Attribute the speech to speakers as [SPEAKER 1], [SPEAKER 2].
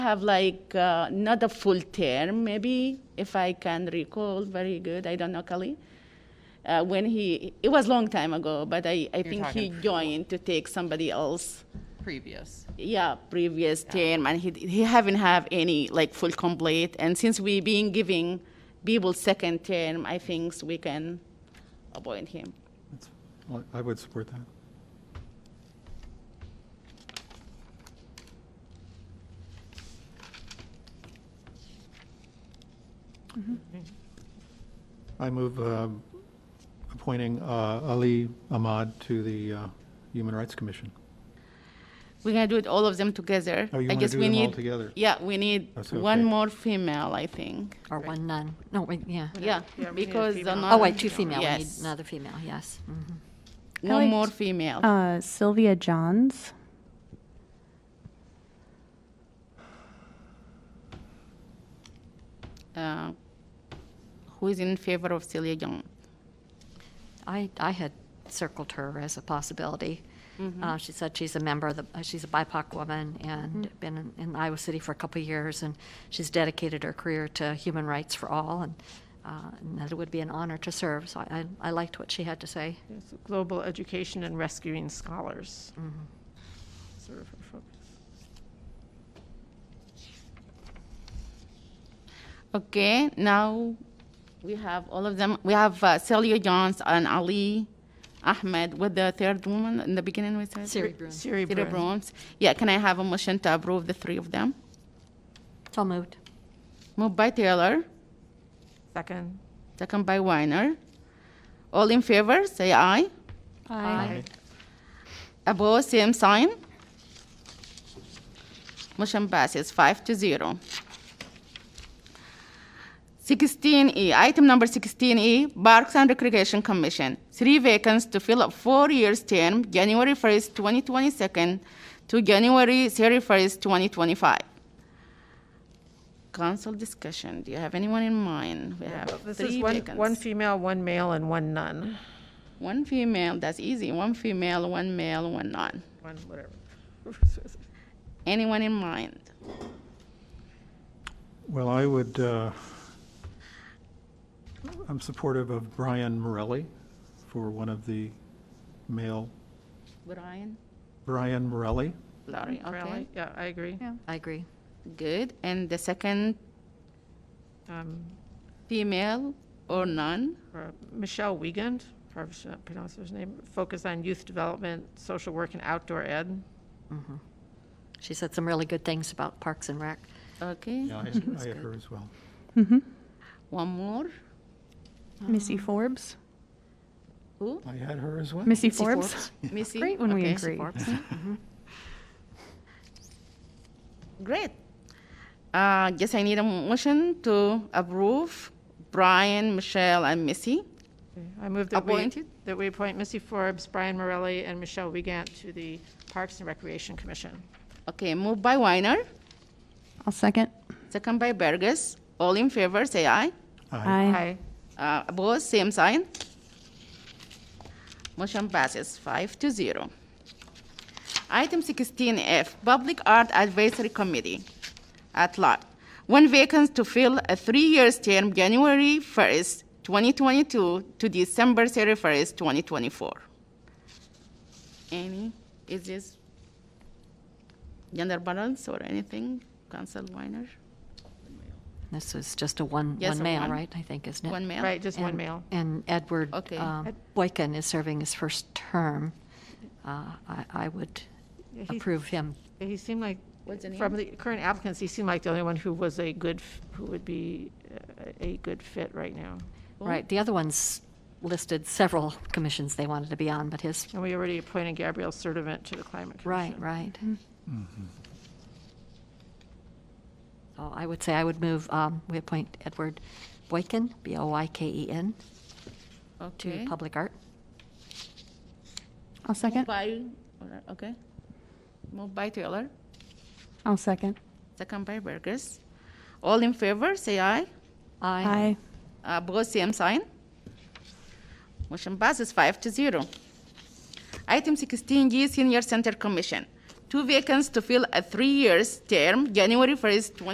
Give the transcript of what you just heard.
[SPEAKER 1] have like uh, not a full term, maybe if I can recall very good. I don't know Kali. Uh, when he, it was long time ago, but I, I think he
[SPEAKER 2] talking-
[SPEAKER 1] joined to take somebody else.
[SPEAKER 2] previous.
[SPEAKER 1] Yeah, previous term, and he he haven't have any like full complete. And since we been giving people second term, I think we can appoint him.
[SPEAKER 3] That's- I- I would support that. I move um, appointing uh, Ali Ahmad to the uh, Human Rights Commission.
[SPEAKER 1] We're gonna do it all of them together.
[SPEAKER 3] Oh, you
[SPEAKER 1] I
[SPEAKER 3] wanna
[SPEAKER 1] guess
[SPEAKER 3] do
[SPEAKER 1] we
[SPEAKER 3] them all
[SPEAKER 1] need-
[SPEAKER 3] together?
[SPEAKER 1] Yeah, we need
[SPEAKER 3] That's
[SPEAKER 1] one
[SPEAKER 3] okay.
[SPEAKER 1] more female, I think.
[SPEAKER 4] Or one nun. No, wait, yeah.
[SPEAKER 1] Yeah, because
[SPEAKER 4] Oh, wait, two female.
[SPEAKER 1] female.
[SPEAKER 4] We need
[SPEAKER 1] Yes.
[SPEAKER 4] another female, yes. Mhm.
[SPEAKER 1] no
[SPEAKER 5] liked-
[SPEAKER 1] more female.
[SPEAKER 5] Uh, Sylvia Johns.
[SPEAKER 1] Uh, who is in favor of Celia Young?
[SPEAKER 4] I, I had circled her as a possibility.
[SPEAKER 1] Mm-hmm.
[SPEAKER 4] Uh, She said she's a member of the, uh, she's a BIPOC woman and
[SPEAKER 1] Mm-hmm.
[SPEAKER 4] been in- in Iowa City for a couple of years, and she's dedicated her career to human rights for all, and uh, and that it would be an honor to serve. So I, I I liked what she had to say.
[SPEAKER 6] Yes, Global education and rescuing scholars. Sort of her focus.
[SPEAKER 1] Okay, now we have all of them. We have uh, Celia Jones and Ali Ahmed with the third woman in the beginning. We said
[SPEAKER 4] Siri Bruin.
[SPEAKER 6] Siri
[SPEAKER 1] Sarah
[SPEAKER 6] Bruin.
[SPEAKER 1] Bruins. Yeah, can I have a motion to approve the three of them?
[SPEAKER 4] So moved.
[SPEAKER 1] Moved by Taylor,
[SPEAKER 6] Second.
[SPEAKER 1] second by Weiner. All in favor, say aye.
[SPEAKER 5] Uh,
[SPEAKER 4] Aye.
[SPEAKER 1] Above, same sign. Motion passes five to zero. Sixteen E, item number sixteen E, Parks and Recreation Commission. Three vacancies to fill up four-year term, January first, twenty twenty-second to January thirty-first, twenty twenty-five. Council discussion, do you have anyone in mind? We have
[SPEAKER 6] This is
[SPEAKER 1] three
[SPEAKER 6] one, one
[SPEAKER 1] vacancies.
[SPEAKER 6] female, one male, and one nun.
[SPEAKER 1] One female, that's easy, one female, one male, one non.
[SPEAKER 6] One, whatever.
[SPEAKER 1] Anyone in mind?
[SPEAKER 3] Well, I would, uh, I'm supportive of Brian Morelli for one of the male,
[SPEAKER 1] Brian?
[SPEAKER 3] Brian Morelli.
[SPEAKER 1] Lori, okay.
[SPEAKER 6] Really? Yeah, I agree.
[SPEAKER 4] I agree.
[SPEAKER 1] Good. And the second
[SPEAKER 6] Um,
[SPEAKER 1] female or none?
[SPEAKER 6] or Michelle Wiegand, probably should not pronounce her name, focus on youth development, social work, and outdoor ed.
[SPEAKER 4] She said some really good things about Parks and Rec.
[SPEAKER 1] Okay.
[SPEAKER 3] Yeah, I I had her as well.
[SPEAKER 1] One more.
[SPEAKER 5] Missy Forbes.
[SPEAKER 1] Who?
[SPEAKER 3] I had her as well.
[SPEAKER 5] Missy,
[SPEAKER 4] Missy
[SPEAKER 5] Forbes.
[SPEAKER 4] Forbes.
[SPEAKER 1] Missy?
[SPEAKER 5] Great when we
[SPEAKER 1] Okay.
[SPEAKER 5] agree.
[SPEAKER 4] Forbes.
[SPEAKER 1] Great. Uh, guess I need a motion to approve Brian, Michelle, and Missy.
[SPEAKER 6] Okay, I move that we,
[SPEAKER 1] Appointed?
[SPEAKER 6] that we appoint Missy Forbes, Brian Morelli, and Michelle Wiegand to the Parks and Recreation Commission.
[SPEAKER 1] Okay, moved by Weiner,
[SPEAKER 5] I'll second.
[SPEAKER 1] second by Burgess. All in favor, say aye.
[SPEAKER 3] Aye.
[SPEAKER 6] Aye.
[SPEAKER 1] Uh, opposed, same sign. Motion passes five to zero. Item sixteen F, Public Art Advisory Committee, at large. One vacancy to fill a three-year term, January first, twenty twenty-two to December thirty-first, twenty twenty-four. Any, is this gender balance or anything, Council Weiner?
[SPEAKER 4] This is just a one,
[SPEAKER 1] Yes,
[SPEAKER 4] one
[SPEAKER 1] a
[SPEAKER 4] male,
[SPEAKER 1] one.
[SPEAKER 4] right, I think, isn't it?
[SPEAKER 1] One male?
[SPEAKER 6] Right, just one
[SPEAKER 4] And-
[SPEAKER 6] male.
[SPEAKER 4] And Edward
[SPEAKER 1] Okay.
[SPEAKER 4] uh, Boykin is serving his first term. Uh, I I would
[SPEAKER 6] Yeah, he-
[SPEAKER 4] approve him.
[SPEAKER 6] Yeah, He seemed like,
[SPEAKER 1] What's the
[SPEAKER 6] from the current applicants, he seemed like the only one who was a good, f- who would be uh, a good fit right now.
[SPEAKER 4] Right, the other ones listed several commissions they wanted to be on, but his,
[SPEAKER 6] And we already appointed Gabrielle Sertivant to the Climate Commission.
[SPEAKER 4] right, right.
[SPEAKER 6] Mm-hmm.
[SPEAKER 4] So I would say I would move, um, we appoint Edward Boykin, B-O-Y-K-E-N,
[SPEAKER 1] Okay.
[SPEAKER 4] E to Public Art.
[SPEAKER 5] I'll second.
[SPEAKER 1] By, alright, okay. Moved by Taylor,
[SPEAKER 5] I'll second.
[SPEAKER 1] second by Burgess. All in favor, say aye.
[SPEAKER 5] Aye.
[SPEAKER 1] Uh, Opposed, same sign. Motion passes five to zero. Item sixteen G, Senior Center Commission. Two vacancies to fill a three years term, January 1st, 20